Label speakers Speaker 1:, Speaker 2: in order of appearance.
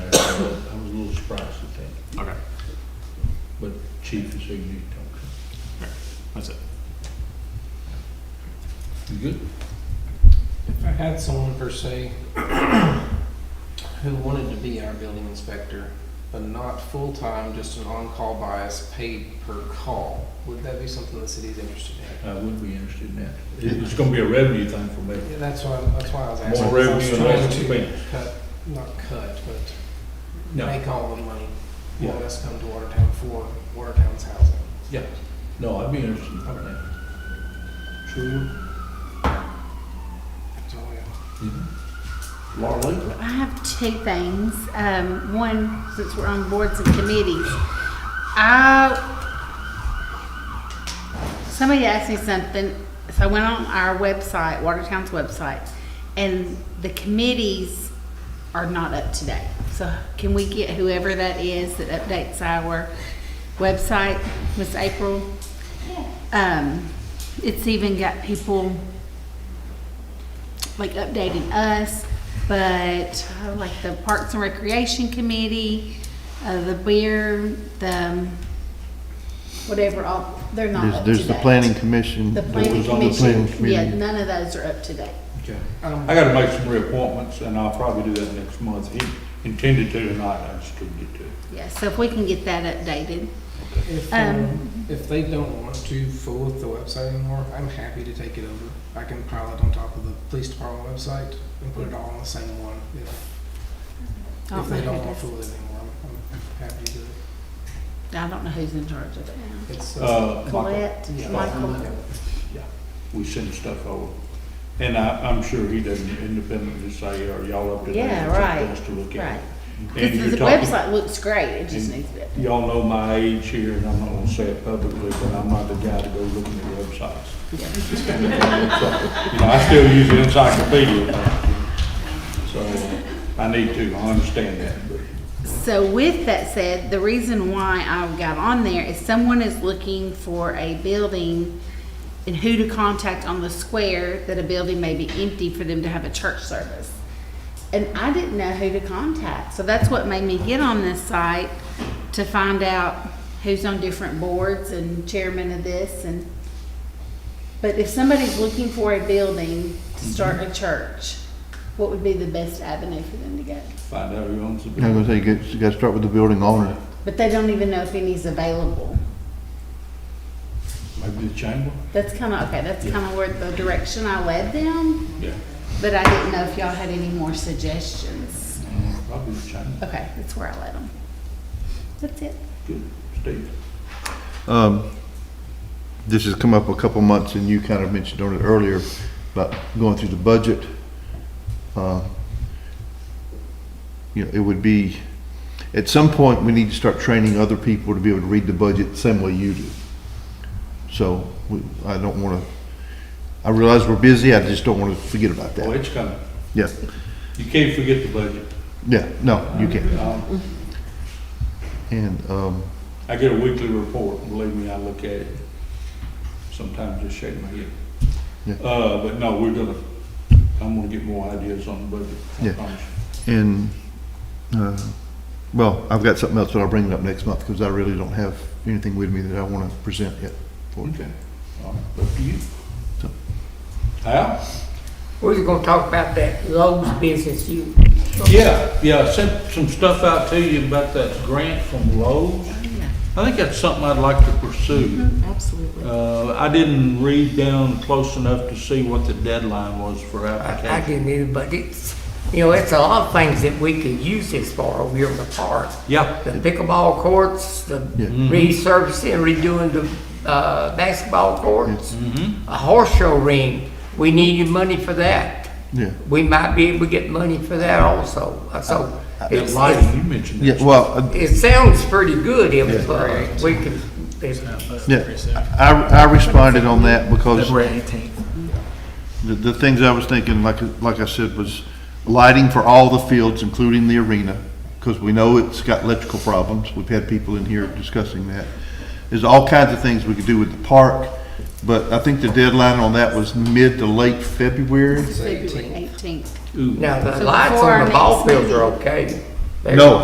Speaker 1: chief is signature. Okay.
Speaker 2: That's it.
Speaker 1: You good?
Speaker 3: If I had someone per se who wanted to be our building inspector, but not full-time, just an on-call bias, paid per call, would that be something the city's interested in?
Speaker 1: I would be interested in that. It- It's gonna be a revenue thing for me.
Speaker 3: Yeah, that's why, that's why I was asking.
Speaker 1: More revenue and
Speaker 3: I
Speaker 1: less
Speaker 3: was trying
Speaker 1: expense.
Speaker 3: to cut, not cut, but
Speaker 1: No,
Speaker 3: make all the money,
Speaker 1: Yeah.
Speaker 3: let us come to Watertown for Watertown's housing.
Speaker 1: yeah, no, I'd be interested in that. Sure.
Speaker 3: That's all I Um, got.
Speaker 1: Laura Lee?
Speaker 4: I have two things. Um, one, since we're on boards and committees, I somebody asked me something, so I went on our website, Watertown's website, and the committees are not up to date. So can we get whoever that is that updates our website, Miss April? Um, it's even got people like updating us, but uh, like the Parks and Recreation Committee, uh, the beer, the um, whatever, all, they're not up
Speaker 5: There's,
Speaker 4: to
Speaker 5: there's
Speaker 4: date.
Speaker 5: the planning commission.
Speaker 4: The
Speaker 5: that
Speaker 4: planning
Speaker 5: was on the planning
Speaker 4: commission, yeah,
Speaker 5: committee.
Speaker 4: none of those are up to date.
Speaker 1: Okay.
Speaker 3: Um,
Speaker 1: I gotta make some reappointments, and I'll probably do that next month. He intended to tonight, I just couldn't get to it.
Speaker 4: Yeah, so if we can get that updated. oh
Speaker 3: If,
Speaker 4: Um,
Speaker 3: um, if they don't want to fool with the website anymore, I'm happy to take it over. I can pile it on top of the police department website and put it all on the same one. If,
Speaker 4: I
Speaker 3: if
Speaker 4: don't know
Speaker 3: they
Speaker 4: who
Speaker 3: don't want to
Speaker 4: does-
Speaker 3: fool with it anymore, I'm, I'm happy to do it.
Speaker 4: I don't know who's in charge of it now.
Speaker 3: It's, uh,
Speaker 1: Uh, Michael,
Speaker 4: Colette,
Speaker 3: yeah.
Speaker 4: Michael,
Speaker 1: we send stuff over, and I, I'm sure he doesn't independently say, are y'all up to date?
Speaker 4: Yeah,
Speaker 1: It's up to
Speaker 4: right,
Speaker 1: us to look at.
Speaker 4: right.
Speaker 1: it. And
Speaker 4: Because
Speaker 1: you're
Speaker 4: the
Speaker 1: talking-
Speaker 4: website looks great, it just
Speaker 1: And-
Speaker 4: needs to be updated.
Speaker 1: Y'all know my age here, and I'm not gonna say it publicly, but I'm not the guy to go looking at websites. You know, I still use the encyclopedia, so I need to, I understand that, but
Speaker 4: So with that said, the reason why I got on there is someone is looking for a building and who to contact on the square that a building may be empty for them to have a church service. And I didn't know who to contact, so that's what made me get on this site to find out who's on different boards and chairman of this and. But if somebody's looking for a building to start a church, what would be the best avenue for them to go?
Speaker 1: find out who owns the
Speaker 5: I
Speaker 1: building.
Speaker 5: was gonna say, you got, you gotta start with the building owner.
Speaker 4: But they don't even know if any's available.
Speaker 1: Maybe the chamber?
Speaker 4: That's kind of, okay, that's kind of where the direction I led them,
Speaker 1: Yeah.
Speaker 4: but I didn't know if y'all had any more suggestions.
Speaker 1: Probably the chamber.
Speaker 4: Okay, that's where I led them. That's it.
Speaker 1: Good, Steve.
Speaker 5: Um, this has come up a couple months and you kind of mentioned on it earlier about going through the budget. Uh, You know, it would be, at some point, we need to start training other people to be able to read the budget the same way you do. So we, I don't wanna, I realize we're busy, I just don't wanna forget about
Speaker 1: Oh,
Speaker 5: that.
Speaker 1: it's coming.
Speaker 5: Yeah,
Speaker 1: You can't forget the budget.
Speaker 5: yeah, no, you can't.
Speaker 1: Um,
Speaker 5: And, um,
Speaker 1: I get a weekly report, believe me, I look at it. Sometimes just shake my head.
Speaker 5: Yeah.
Speaker 1: Uh, but no, we're gonna, I'm gonna get more ideas on the budget, I
Speaker 5: Yeah.
Speaker 1: promise.
Speaker 5: And, uh, well, I've got something else, but I'll bring it up next month because I really don't have anything with me that I want to present yet. for you.
Speaker 1: Okay, all right, up to you.
Speaker 5: So-
Speaker 1: Al?
Speaker 6: We're just gonna talk about that Lowe's business you.
Speaker 1: Yeah, yeah, I sent some stuff out to you about that grant from Lowe's.
Speaker 6: Oh,
Speaker 1: I think that's something I'd like to pursue.
Speaker 6: Mm-hmm.
Speaker 4: Absolutely.
Speaker 1: Uh, I didn't read down close enough to see what the deadline was for
Speaker 6: I I
Speaker 1: application.
Speaker 6: didn't either, but it's, you know, it's a lot of things that we could use this for over here in the park.
Speaker 1: Yeah,
Speaker 6: The pickleball courts, the
Speaker 5: Yeah.
Speaker 6: resurfacing, redoing the, uh, basketball courts. A horse show ring, we needed money for that.
Speaker 5: Yeah.
Speaker 6: We might be able to get money for that also, Uh, so.
Speaker 1: that
Speaker 6: it's-
Speaker 1: lighting, you mentioned
Speaker 5: Yeah,
Speaker 1: that.
Speaker 5: well, uh,
Speaker 6: It sounds pretty good if, uh, we could, if
Speaker 5: yeah, I, I responded on that because
Speaker 7: eighteenth.
Speaker 5: the, the things I was thinking, like, like I said, was lighting for all the fields, including the arena, because we know it's got electrical problems. We've had people in here discussing that. There's all kinds of things we could do with the park, but I think the deadline on that was mid to late February.
Speaker 4: February eighteenth.
Speaker 6: Now,
Speaker 4: So
Speaker 6: the lights
Speaker 4: before our
Speaker 6: on the ball
Speaker 4: next
Speaker 6: fields are
Speaker 4: meeting.
Speaker 6: okay. They're-
Speaker 5: No,